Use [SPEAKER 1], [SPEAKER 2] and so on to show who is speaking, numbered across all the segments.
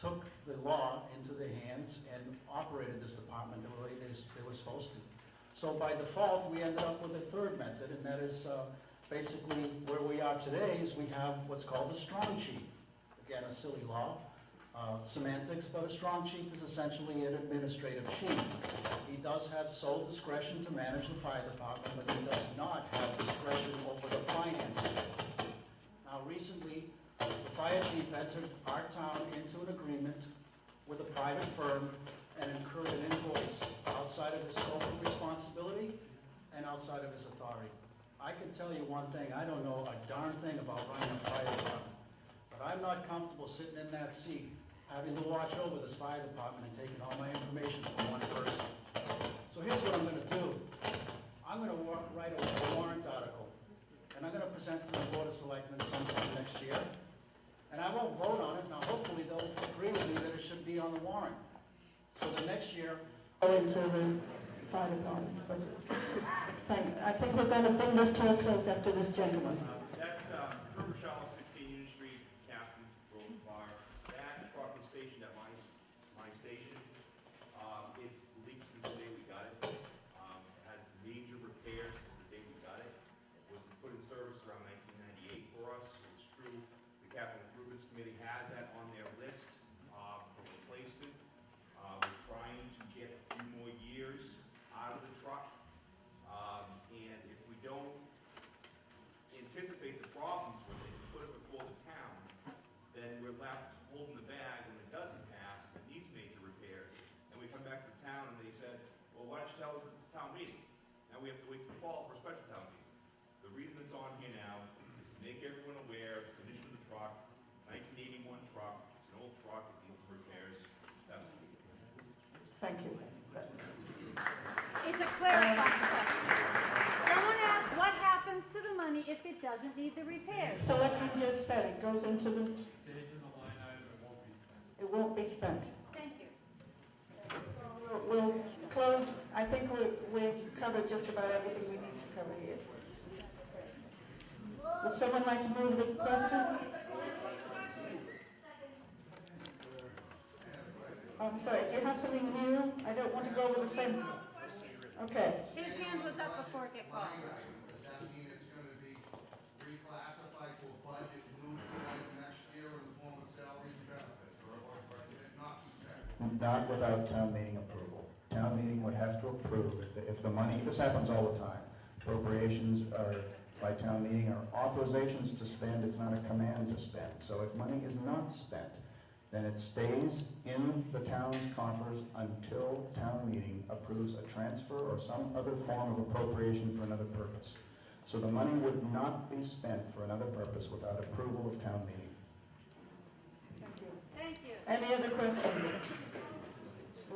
[SPEAKER 1] took the law into their hands and operated this department the way they, s- they were supposed to. So by default, we ended up with a third method, and that is uh, basically where we are today is we have what's called a strong chief. Again, a silly law, uh, semantics, but a strong chief is essentially an administrative chief. He does have sole discretion to manage the fire department, but he does not have discretion over the finances. Now, recently, the fire chief entered our town into an agreement with a private firm and incurred an invoice outside of his scope of responsibility and outside of his authority. I can tell you one thing, I don't know a darn thing about running a fire department, but I'm not comfortable sitting in that seat, having to watch over this fire department and taking all my information from one person. So here's what I'm gonna do. I'm gonna wa- write a warrant article, and I'm gonna present to the Board of Selectmen sometime next year. And I won't vote on it, now hopefully they'll agree with me that it should be on the warrant. So the next year,
[SPEAKER 2] go into the fire department. but Thank, I think we're going to bring this to a close after this gentleman.
[SPEAKER 3] Uh, That's uh, Herbert Shaw, 16 Union Street, Captain, Road Fire. That truck was stationed at my, my station. Um, It's leaked since the day we got it. Um, it Has major repairs since the day we got it. It Was put in service around 1998 for us. It's true, the Capital Improvements Committee has that on their list uh, for replacement. Uh, We're trying to get a few more years out of the truck. Um, And if we don't anticipate the problems with it, put it before the town, then we're left holding the bag when it doesn't pass, and needs major repairs, and we come back to town and they said, well, why don't you tell us at the town meeting? Now we have to wait till fall for a special town meeting. The reason it's on here now is to make everyone aware of the condition of the truck, nineteen eighty-one truck, it's an old truck, it needs some repairs, that's what we do.
[SPEAKER 2] Thank you.
[SPEAKER 4] It's a clarifying question. Someone asked, what happens to the money if it doesn't need the repairs?
[SPEAKER 2] So what you just said, it goes into the,
[SPEAKER 5] Stays in the line item, it won't be spent.
[SPEAKER 2] it won't be spent.
[SPEAKER 4] Thank you.
[SPEAKER 2] We'll- We'll close, I think we, we've covered just about everything we need to cover here. Would someone like to move the question? I'm sorry, do you have something new? I don't want to go with the same. Okay,
[SPEAKER 4] His hand was up before it got called.
[SPEAKER 6] Does that mean it's gonna be reclassified to a budget moved like next year in the form of salaries and benefits, or, or, or did it not expect?
[SPEAKER 7] Not without town meeting approval. Town meeting would have to approve if, the- if the money, this happens all the time. Appropriations are by town meeting are authorizations to spend, it's not a command to spend. So if money is not spent, then it stays in the town's coffers until town meeting approves a transfer or some other form of appropriation for another purpose. So the money would not be spent for another purpose without approval of town meeting.
[SPEAKER 4] Thank you.
[SPEAKER 2] any other questions?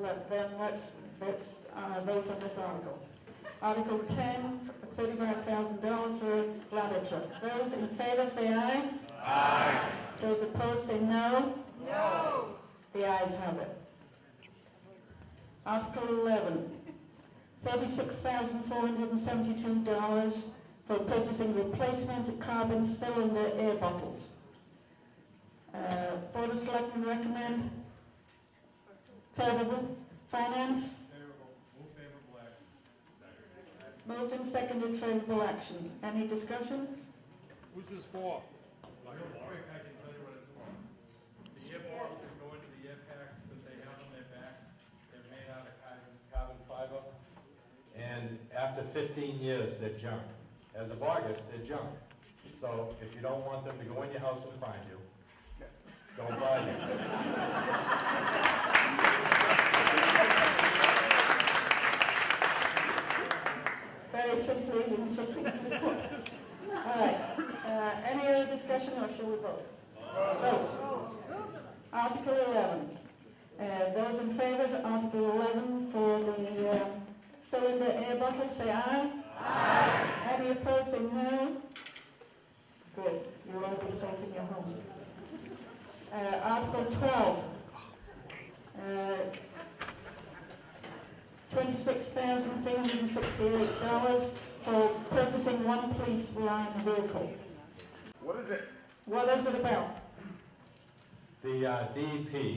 [SPEAKER 2] Let, then let's, let's, uh, vote on this article. Article ten, thirty-five thousand dollars for a ladder truck. Those in favor say aye. Aye. Those opposed say no.
[SPEAKER 4] No.
[SPEAKER 2] The ayes have it. Article 11, $36,472 for purchasing replacement carbon cylinder air bottles. Uh, Board of Selectmen recommend favorable. Finance,
[SPEAKER 5] Favorable, move favorable action.
[SPEAKER 2] moved and seconded favorable action. Any discussion?
[SPEAKER 8] Who's this
[SPEAKER 5] Real
[SPEAKER 8] for?
[SPEAKER 5] quick, I can tell you what it's for. The air bottles that go into the air packs that they have on their backs, they're made out of carbon, carbon fiber.
[SPEAKER 9] And after 15 years, they're junk. As of August, they're junk. So if you don't want them to go in your house and find you, don't buy these.
[SPEAKER 2] Very simply and succinctly put. All right. Uh, Any other discussion or shall we vote? Vote. Article 11. Uh, Those in favour of Article 11 for the uh, cylinder air bottle, say aye. Aye. Any opposed, say no. Good, you'll all be safe in your homes. Uh, Article 12. Uh, $26,368 for purchasing one police line vehicle.
[SPEAKER 3] What is it?
[SPEAKER 2] What is it about?
[SPEAKER 9] The uh, DEP